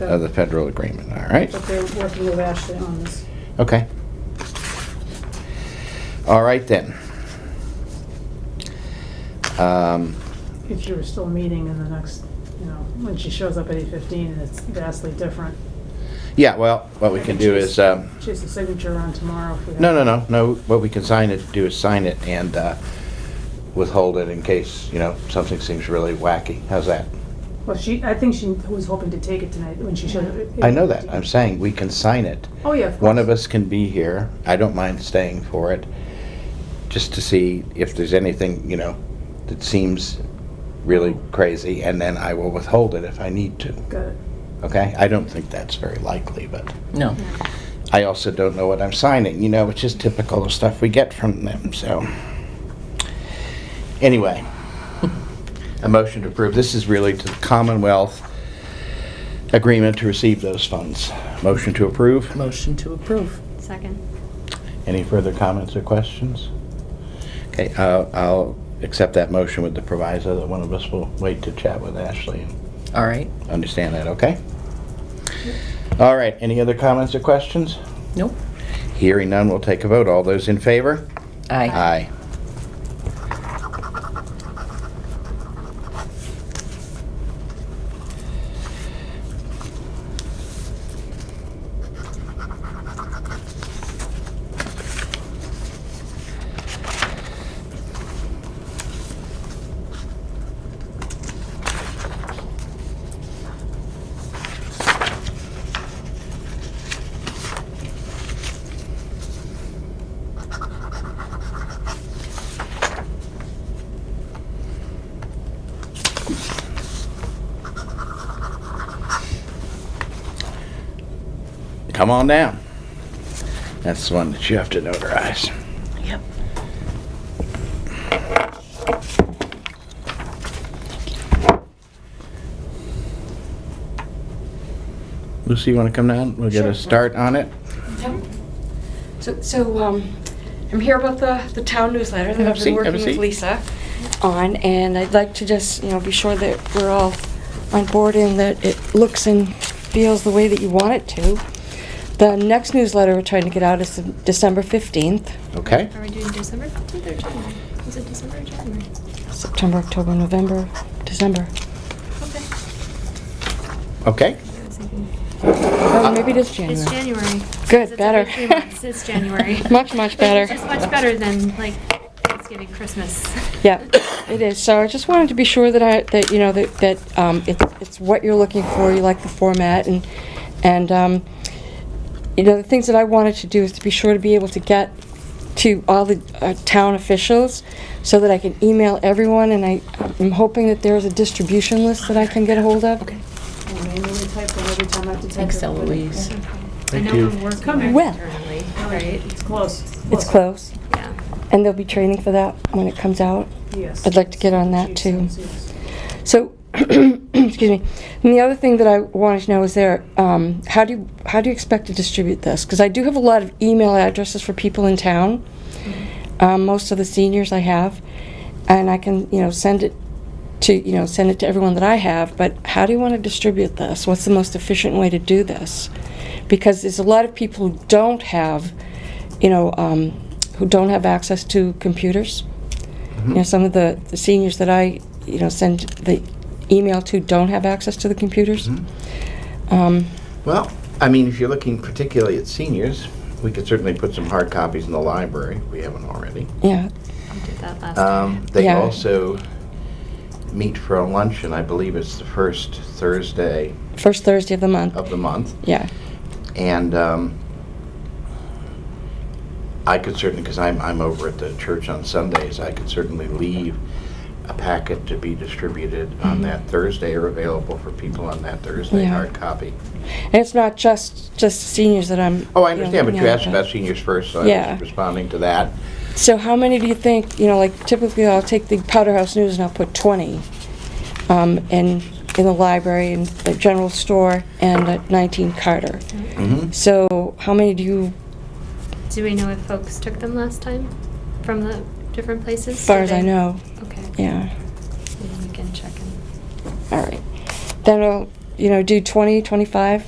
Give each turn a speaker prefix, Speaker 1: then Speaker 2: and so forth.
Speaker 1: of Uh, the federal agreement, all right?
Speaker 2: But they're working with Ashley on this.
Speaker 1: Okay. All right then. Um,
Speaker 2: If you were still meeting in the next, you know, when she shows up at eight fifteen, and it's vastly different.
Speaker 1: Yeah, well, what we can do is, um,
Speaker 2: She has a signature on tomorrow. if we have-
Speaker 1: no, no, no, no, what we can sign it, do is sign it and uh, withhold it in case, you know, something seems really wacky. How's that?
Speaker 2: Well, she, I think she was hoping to take it tonight when she showed up.
Speaker 1: I know that, I'm saying we can sign it.
Speaker 2: Oh, yeah, of course.
Speaker 1: One of us can be here, I don't mind staying for it, just to see if there's anything, you know, that seems really crazy, and then I will withhold it if I need to.
Speaker 2: Got it.
Speaker 1: Okay, I don't think that's very likely, but
Speaker 3: No.
Speaker 1: I also don't know what I'm signing, you know, which is typical of stuff we get from them, so. Anyway, a motion to approve, this is really to the Commonwealth agreement to receive those funds. Motion to approve.
Speaker 3: Motion to approve.
Speaker 4: Second.
Speaker 1: Any further comments or questions? Okay, uh, I'll accept that motion with the proviso that one of us will wait to chat with Ashley and
Speaker 3: All right.
Speaker 1: understand that, okay? All right, any other comments or questions?
Speaker 3: Nope.
Speaker 1: Hearing none, we'll take a vote. All those in favor?
Speaker 3: Aye.
Speaker 1: Aye. Come on down. That's the one that you have to notarize.
Speaker 3: Yep.
Speaker 1: Lucy, you want to come down? We'll get
Speaker 5: Sure.
Speaker 1: a start on it.
Speaker 5: Yep. So, so um, I'm here about the, the town newsletter that
Speaker 1: Have a
Speaker 5: I've
Speaker 1: seat,
Speaker 5: been
Speaker 1: have a
Speaker 5: working with
Speaker 1: seat.
Speaker 5: Lisa on, and I'd like to just, you know, be sure that we're all on board and that it looks and feels the way that you want it to. The next newsletter we're trying to get out is December 15th,
Speaker 1: Okay?
Speaker 4: Are we doing December 15th or January? Is it December or January?
Speaker 5: September, October, November, December.
Speaker 4: Okay.
Speaker 1: Okay?
Speaker 4: I was thinking-
Speaker 5: Or Oh, maybe it is January.
Speaker 4: It's January. 'Cause
Speaker 5: Good,
Speaker 4: it's every
Speaker 5: better.
Speaker 4: three months. It's January.
Speaker 5: Much, much
Speaker 4: Which
Speaker 5: better.
Speaker 4: is just much better than like Thanksgiving, Christmas.
Speaker 5: Yeah, it is. So I just wanted to be sure that I, that, you know, that, that, um, it's, it's what you're looking for, you like the format and, and, um, you know, the things that I wanted to do is to be sure to be able to get to all the uh, town officials so that I can email everyone and I, I'm hoping that there's a distribution list that I can get a hold of. Okay.
Speaker 2: And manually type them every time I have to type.
Speaker 3: Thanks,
Speaker 2: it.
Speaker 3: Eloise.
Speaker 4: I know
Speaker 1: you.
Speaker 4: I'm working
Speaker 2: coming.
Speaker 4: back
Speaker 5: Well.
Speaker 4: internally, right?
Speaker 2: It's close.
Speaker 5: It's close.
Speaker 4: Yeah.
Speaker 5: And there'll be training for that when it comes out.
Speaker 2: Yes.
Speaker 5: I'd like to get on that,
Speaker 2: Yes,
Speaker 5: too.
Speaker 2: yes, yes.
Speaker 5: So, excuse me. And the other thing that I wanted to know is there, um, how do you, how do you expect to distribute this? Because I do have a lot of email addresses for people in town. Um, most of the seniors I have, and I can, you know, send it to, you know, send it to everyone that I have. But how do you want to distribute this? What's the most efficient way to do this? Because there's a lot of people who don't have, you know, um, who don't have access to computers. You
Speaker 1: Mm-hmm.
Speaker 5: know, some of the, the seniors that I, you know, send the email to don't have access to the computers.
Speaker 1: Mm-hmm.
Speaker 5: Um,
Speaker 1: Well, I mean, if you're looking particularly at seniors, we could certainly put some hard copies in the library. if We haven't already.
Speaker 5: yeah,
Speaker 4: We did that last time.
Speaker 1: Um, They
Speaker 5: Yeah.
Speaker 1: also meet for a luncheon. I believe it's the first Thursday
Speaker 5: first Thursday of the month.
Speaker 1: of the month.
Speaker 5: Yeah,
Speaker 1: And um, I could certainly, because I'm, I'm over at the church on Sundays, I could certainly leave a packet to be distributed on that Thursday or available for people on that Thursday,
Speaker 5: Mm-hmm. Yeah.
Speaker 1: hard copy.
Speaker 5: and it's not just just seniors that I'm.
Speaker 1: Oh, I
Speaker 5: you know,
Speaker 1: understand, but you
Speaker 5: yeah,
Speaker 1: asked about seniors first, so I
Speaker 5: Yeah.
Speaker 1: was responding to that.
Speaker 5: So how many do you think? You know, like typically I'll take the Powder House News and I'll put twenty, um, and in the library and the general store and at 19 Carter.
Speaker 1: Mhm.
Speaker 5: So how many do you?
Speaker 4: Mm-hmm. Do we know if folks took them last time from the different places?
Speaker 5: As far
Speaker 4: Did
Speaker 5: as I
Speaker 4: they-
Speaker 5: know,
Speaker 4: Okay.
Speaker 5: yeah.
Speaker 4: Maybe we can check in.
Speaker 5: All right. Then I'll you know, do 20, 25?